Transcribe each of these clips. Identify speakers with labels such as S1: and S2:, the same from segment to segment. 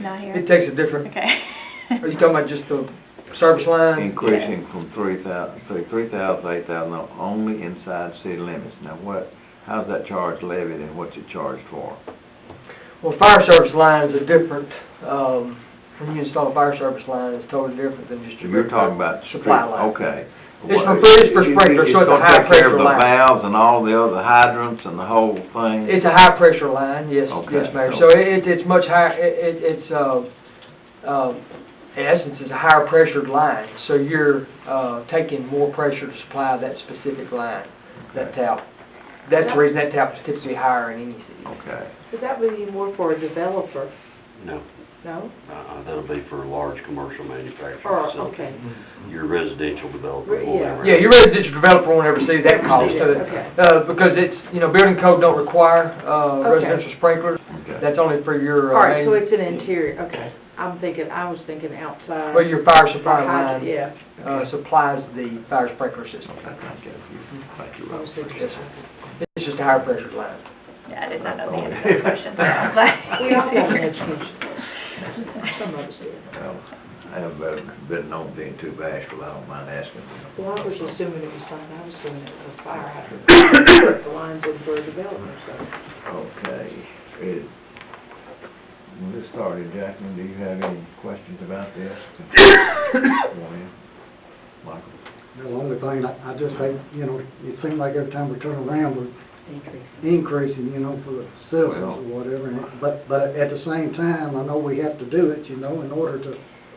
S1: Not here?
S2: It takes a different, are
S1: Okay.
S2: you talking about just the service line?
S3: Increasing from three thousand, say, three thousand, eight thousand, only inside city limits. Now, what, how's that charge levied and what's it charged for?
S2: Well, fire service lines are different, um, when you install a fire service line, it's totally different than just
S3: So
S2: your.
S3: you're talking about street,
S2: Supply line.
S3: okay.
S2: It's for-
S3: What-
S2: it's for
S3: it- it-
S2: sprinklers, so it's a
S3: gonna take care of
S2: high-pressure line.
S3: The valves and all the other hydrants and the whole thing?
S2: It's a high pressure line, yes, yes,
S3: Okay,
S2: Mayor,
S3: so-
S2: so it, it's much higher, it, it- it's, uh, uh, in essence, it's a higher pressured line, so you're, uh, taking more pressure to supply that specific line, that
S3: Okay.
S2: tap. That's the reason that tap is typically higher in any city.
S3: Okay.
S4: But that would be more for a developer,
S5: No,
S4: no?
S5: uh-uh, that'll be for a large commercial manufacturing
S4: Or,
S5: facility.
S4: okay,
S5: Your residential developer,
S4: Re- yeah.
S5: whatever.
S2: Yeah, your residential developer won't ever see that cost, so,
S4: Okay.
S2: uh, because it's, you know, building code don't require, uh,
S4: Okay.
S2: residential sprinklers,
S3: Okay.
S2: that's only for
S4: all
S2: your, uh,
S4: right, so
S2: main,
S4: it's an interior, okay. I'm thinking, I was thinking outside.
S2: well, your fire supply
S4: Or hyd-
S2: line,
S4: Yeah.
S2: uh, supplies the fire sprinkler system.
S3: Okay, thank you. Thank you,
S4: I was
S3: Rob.
S4: thinking-
S2: Yes, sir. It's just a higher pressure line.
S1: Yeah, I did not know the answer to that question. so I
S4: We all
S1: was
S4: have an
S1: like-
S4: education, some of us do.
S3: Well, I haven't been- been known being too bashful, I don't mind asking.
S4: Well, I was assuming it was something, I was doing it was fire hydrant, the lines in for a developer, so.
S3: Okay, it, when this started, Jacqueline, do you have any questions about this? Go in. Michael?
S6: The only thing, I I just think, you know, it seems like every time we turn around, we're increasing, you know, for the citizens or whatever, and- but, but at the same time, I know we have to do it, you know, in order to,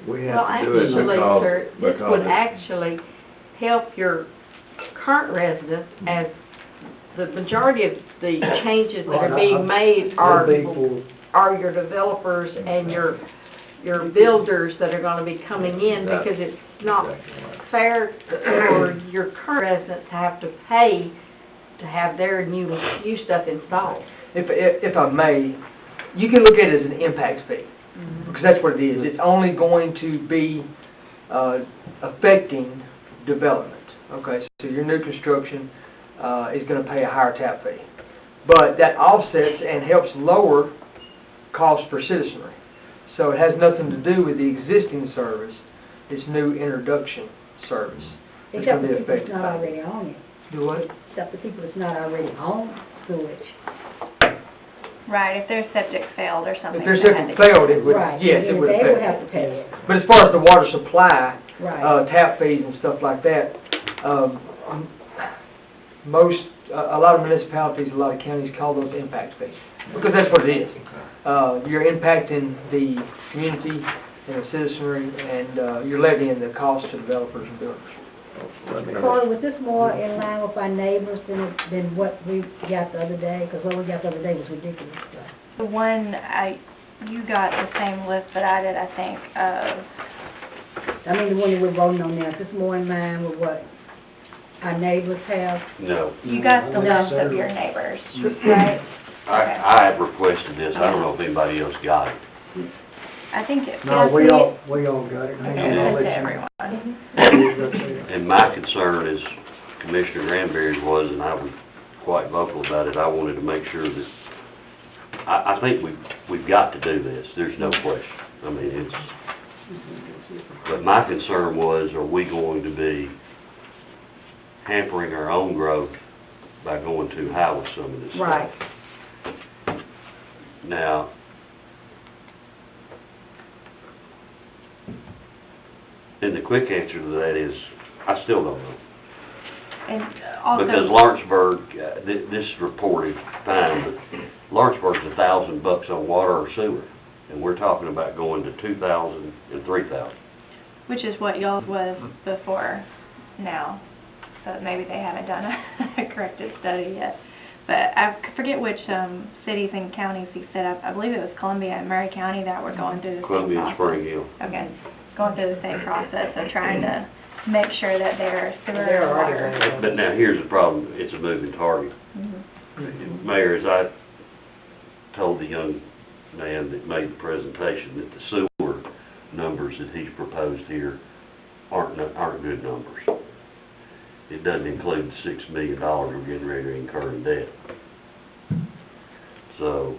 S3: We
S7: Well,
S3: have to do it
S7: actually,
S3: because,
S7: sir, this
S3: Oh, because
S7: would
S3: it's-
S7: actually help your current residents as the majority of the changes that are being made
S6: it'll
S7: are,
S6: be for,
S7: are your developers and your, your builders that are gonna be coming in because it's not
S3: Exactly right.
S7: fair for your current residents to have to pay to have their new, new stuff installed.
S2: If, if, if I may, you can look at it as an impact fee,
S8: Mm-hmm.
S2: because that's what it is. It's only going to be, uh, affecting development, okay? So your new construction, uh, is gonna pay a higher tap fee. But that offsets and helps lower cost for citizenry. So it has nothing to do with the existing service, it's new introduction service. that's
S8: Except
S2: gonna
S8: for
S2: be
S8: people that's
S2: affected
S8: not
S2: by it.
S8: already on it,
S2: Do what?
S8: except for people that's not already on sewage.
S1: Right, if their septic failed or something.
S2: If their
S1: they had
S2: septic
S1: to-
S2: failed, it would,
S8: Right,
S2: yes, it
S8: and
S2: would
S8: They would have
S2: affect.
S8: to pay it,
S2: But as far as the water supply,
S8: right.
S2: uh, tap fees and stuff like that, um, most, a a lot of municipalities, a lot of counties call those impact fees, because that's what it is. Uh, You're impacting the community and the citizenry, and uh, you're levying the cost to developers and builders.
S3: Oh, Let me-
S8: Corey, was this more in line with our neighbors than, than what we got the other day? Because what we got the other day was ridiculous stuff.
S1: The one, I, you got the same list that I did, I think, of,
S8: I mean, the one that we're voting on now, is this more in line with what our neighbors have?
S5: No,
S6: Mm-hmm.
S1: you got the
S6: No,
S1: list of
S6: sir.
S1: your neighbors,
S6: Mm-hmm.
S1: right?
S5: I, I have requested this, I don't know if anybody else got it.
S1: I think it.
S6: no,
S1: yes,
S6: we
S1: it-
S6: all, we all got it. Hang on,
S1: It's
S6: I'll let
S1: to
S6: you-
S1: everyone.
S5: And my concern is Commissioner Granberry was, and I was quite vocal about it, I wanted to make sure that, I, I think we, we've got to do this, there's no question. I mean, it's, but my concern was, are we going to be hampering our own growth by going too high with some of this stuff?
S7: Right.
S5: Now, and the quick answer to that is, I still don't know.
S1: And also.
S5: Because Lawrenceburg, uh, thi- this is reported fine, but Lawrenceburg's a thousand bucks on water or sewer. And we're talking about going to two thousand and three thousand.
S1: Which is what y'all was before now, but maybe they haven't done a corrected study yet. But I forget which, um, cities and counties he said, I, I believe it was Columbia and Murray County that were going through the same process.
S5: Columbia and Spring Hill.
S1: Okay, going through the same process of trying to make sure that their sewer
S4: They're
S1: and
S4: already
S1: water.
S4: running.
S5: But now, here's the problem, it's a moving target.
S1: Mhm.
S5: Mayor, as I told the young man that made the presentation, that the sewer numbers that he's proposed here aren't, no- aren't good numbers. It doesn't include the six million dollars we're getting ready to incur in debt. So,